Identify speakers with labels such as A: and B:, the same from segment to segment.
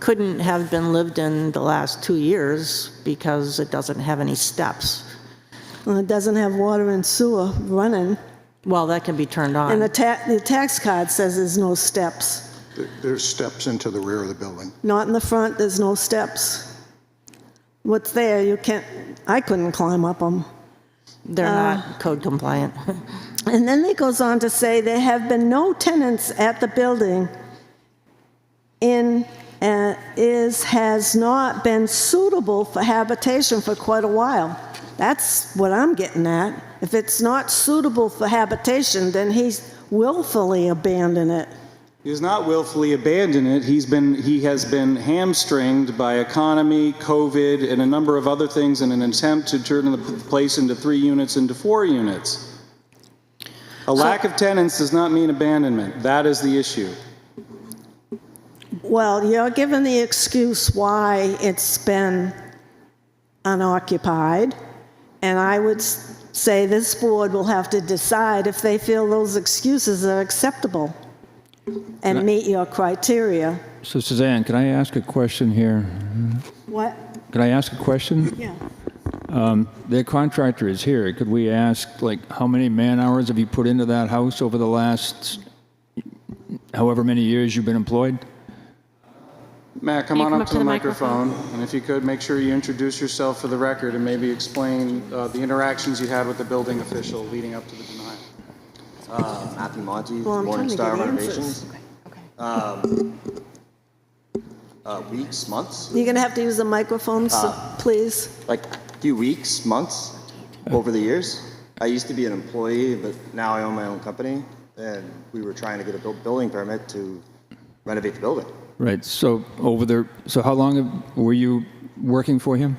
A: couldn't have been lived in the last two years because it doesn't have any steps.
B: Well, Uh, it doesn't have water and sewer running.
A: Well, that can be turned
B: And the
A: on.
B: ta, the tax card says there's no steps.
C: There- There's steps into the rear of the building.
B: Not in the front, there's no steps. What's there, you can't, I couldn't climb up them.
A: They're
B: uh,
A: not code compliant.
B: And then it goes on to say, there have been no tenants at the building in, uh, is, has not been suitable for habitation for quite a while. That's what I'm getting at. If it's not suitable for habitation, then he's willfully abandoned it.
D: He's not willfully abandoned it. He's been he has been hamstringed by economy, COVID, and a number of other things in an attempt to turn the p- place into three units into four units. A lack of tenants does not mean abandonment. That is the issue.
B: Well, you're given the excuse why it's been unoccupied, and I would s- say this board will have to decide if they feel those excuses are acceptable and meet your criteria.
E: So Suzanne, can I ask a question here?
B: What?
E: Can I ask a question?
B: Yeah.
E: The contractor is here. Could we ask, like, how many man-hours have you put into that house over the last however many years you've been employed?
D: Matt, come
F: you
D: on
F: come
D: up to the microphone, and if you could, make sure you introduce yourself for the record and maybe explain uh, the interactions you had with the building official leading up to the denial.
G: Uh, Matthew Monty,
B: Well, I'm trying to
G: Morningstar
B: get answers.
G: Renovations. Uh, weeks, months,
B: You're going to have to use the microphone, so please.
G: like a few weeks, months over the years. I used to be an employee, but now I own my own company, and we were trying to get a buil- building permit to renovate the building.
E: Right, so over there, so how long have- were you working for him?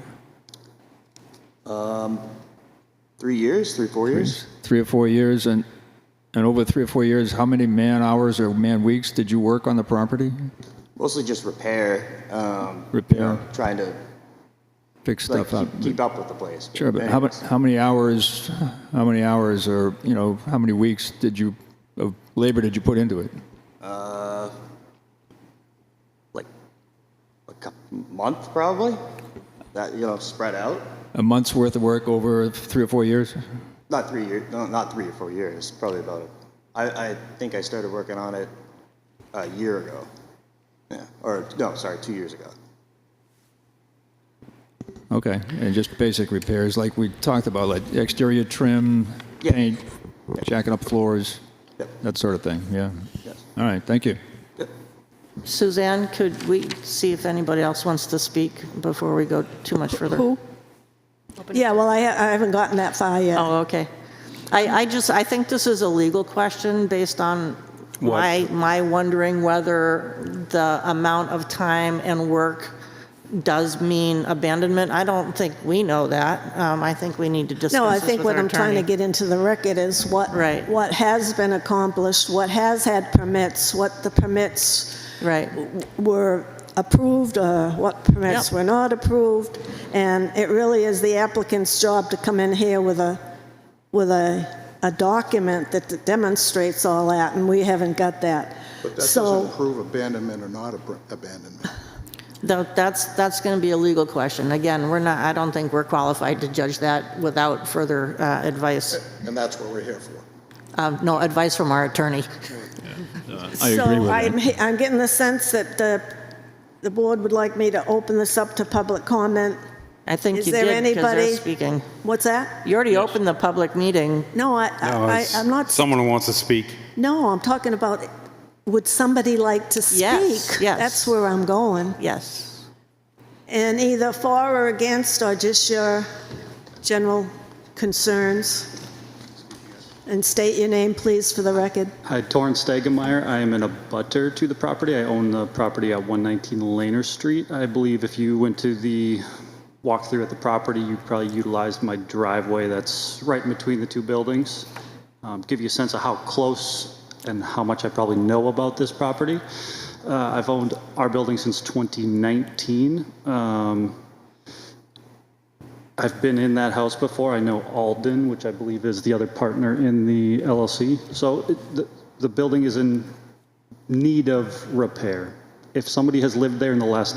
G: Three years, three, four years.
E: Three or four years, and, and over three or four years, how many man-hours or man-weeks did you work on the property?
G: Mostly just repair, um,
E: Repair,
G: trying to
E: fix
G: like,
E: stuff up?
G: keep, keep up with the place.
E: Sure, but how many,
G: Anyways,
E: how many hours, how many hours or, you know, how many weeks did you, of labor did you put into it?
G: Like a couple, month probably. That you know, spread out.
E: A month's worth of work over three or four years?
G: Not three years. No, not three or four years. Probably about. A, I, I think I started working on it a year ago. Yeah. Or no, sorry, two years ago.
E: Okay, and just basic repairs like we talked about, like exterior trim,
G: Yeah.
E: paint, jacking up floors,
G: Yep.
E: that sort of thing, yeah?
G: Yes.
E: All right, thank you.
A: Suzanne, could we see if anybody else wants to speak before we go too much further?
B: Yeah, well, I I haven't gotten that far yet.
A: Oh, okay. I, I just, I think this is a legal question based on my, my wondering whether the amount of time and work does mean abandonment. I don't think we know that. Um, I think we need to discuss this
B: No, I
A: with
B: think what
A: our
B: I'm trying to
A: attorney.
B: get into the record is what.
A: Right.
B: What has been accomplished, what has had permits, what the permits
A: Right.
B: were approved, or what permits
A: Yep.
B: were not approved, and it really is the applicant's job to come in here with a, with a, a document that demonstrates all that, and we haven't got that.
C: But that
B: So,
C: doesn't prove abandonment or not ab- abandonment.
A: Tho- That's, that's going to be a legal question. Again, we're not, I don't think we're qualified to judge that without further uh, advice,
C: And that's what we're here for.
A: Um, no, advice from our attorney.
E: I agree with
B: so
E: that.
B: I'm, he- I'm getting the sense that the, the board would like me to open this up to public comment.
A: I think
B: Is
A: you
B: there
A: did because they're
B: anybody-
A: speaking.
B: What's that?
A: You already opened the public meeting.
B: No, I,
H: No,
B: I,
H: it's
B: I'm not,
H: Someone who wants to speak.
B: no, I'm talking about, would somebody like to speak?
A: Yes, yes.
B: That's where I'm going.
A: Yes.
B: And either for or against are just your general concerns. And state your name, please, for the record.
I: Hi, Torrance Stegemeyer. I am an abutter to the property. I own the property at 119 Laner Street. I believe if you went to the walkthrough at the property, you probably utilized my driveway that's right in between the two buildings. Um, Give you a sense of how close and how much I probably know about this property. Uh, I've owned our building since 2019. Um, I've been in that house before. I know Alden, which I believe is the other partner in the LLC. So it- the, the building is in need of repair. If somebody has lived there in the last